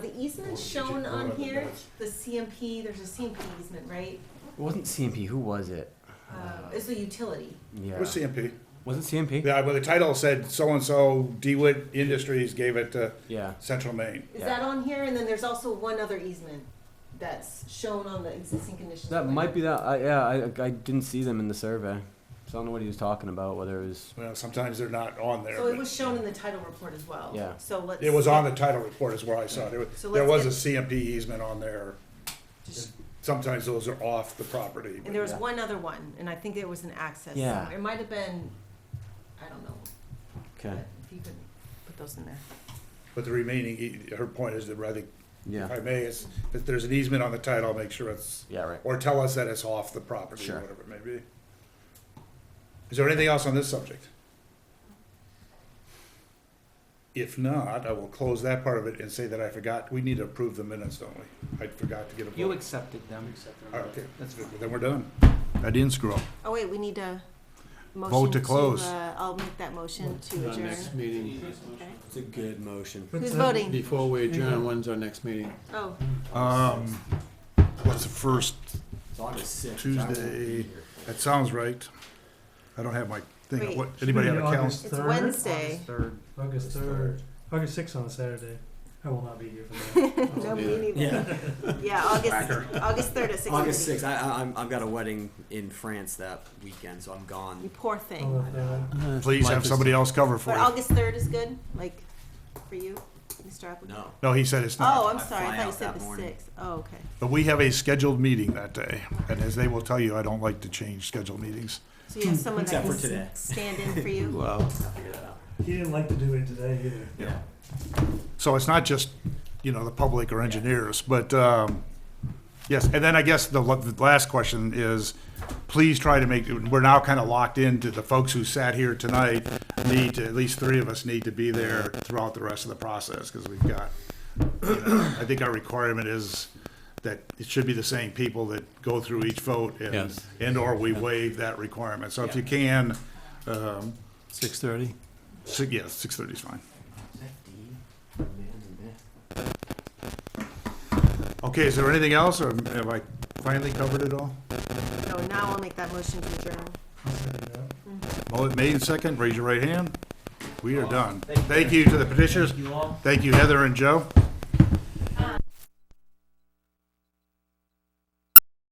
easement shown on here? The CMP, there's a CMP easement, right? It wasn't CMP. Who was it? Uh, It's a utility. Yeah. What's CMP? Wasn't CMP? Yeah, well, the title said so-and-so DeWitt Industries gave it to Yeah. Central Maine. Is Yeah. that on here? And then there's also one other easement that's shown on the existing conditions. That plan. might be that. I, yeah, I, I didn't see them in the survey, so I don't know what he was talking about. Whether it was Well, sometimes they're not on there. So it but was shown in the title report as well. Yeah. So let's. It was on the title report is where I saw it. There was- So There was let's a CMP easement on there. Just- Sometimes those are off the property. but- And there was Yeah. one other one, and I think there was an access. Yeah. somewhere. It might have been, I don't know, but okay. if you could put those in there. But the remaining, e- her point is that, I think, Yeah. if I may, is that there's an easement on the title, make sure it's, Yeah. Right. or tell us that it's off the property, Sure. or whatever it may be. Is there anything else on this subject? If not, I will close that part of it and say that I forgot, we need to approve the minutes, don't we? I forgot to get a You vote. accepted them. Okay, That's good. then we're done. I didn't screw up. Oh, wait, we need a motion. Vote to close. uh, I'll make that motion to Our adjourn. next meeting, Okay. It's a good motion. Who's voting? before we adjourn, when's our next meeting? Oh, Um, what's the first, It's August sixth. Tuesday, that sounds right. I don't have my thing, Wait. what, anybody have a calendar? it's Wednesday. Third. August third, August sixth on a Saturday. I will not be here for that. No, we need- Yeah. Yeah, August, August third at six. August sixth. I, I I'm, I've got a wedding in France that weekend, so I'm You gone. poor I'll thing. let that one. Please have somebody else cover for But you. August third is good, like, for you, Mr. Appleton? No. No, he said it's Oh, not, I'm I sorry, I fly thought you out said that the morning. sixth. Oh, okay. but we have a scheduled meeting that day, and as they will tell you, I don't like to change scheduled meetings. So you have someone that Except can for today. s- stand in for you? Well, I'll figure that out. He didn't like to do it today either. Yeah. So it's not just, you know, the public or engineers, but, um, yes, and then I guess the la- the last question is, please try to make, we're now kind of locked into the folks who sat here tonight need to, at least three of us need to be there throughout the rest of the process, because we've got, you know, I think our requirement is that it should be the same people that go through each vote and, Yes. and/or we waive that requirement. So if you can, um, Six thirty. si- yeah, six thirty is fine. Okay, is there anything else, or have I finally covered it all? No, now I'll make that motion to adjourn. I'll send it out. All it made and second, raise your right hand. We are done. Thank you to the petitioners. You all. Thank you, Heather and Joe.